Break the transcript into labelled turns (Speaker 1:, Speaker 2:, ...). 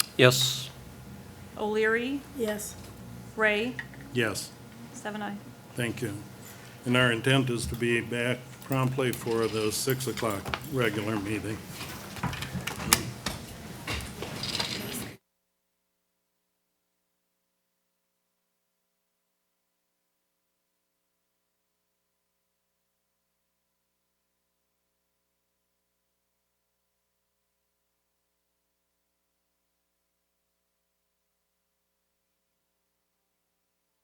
Speaker 1: Yes.
Speaker 2: O'Leary,
Speaker 3: Yes.
Speaker 2: Ray,
Speaker 4: Yes,
Speaker 2: seven I.
Speaker 4: thank you. And our intent is to be back promptly for the 6 o'clock regular meeting.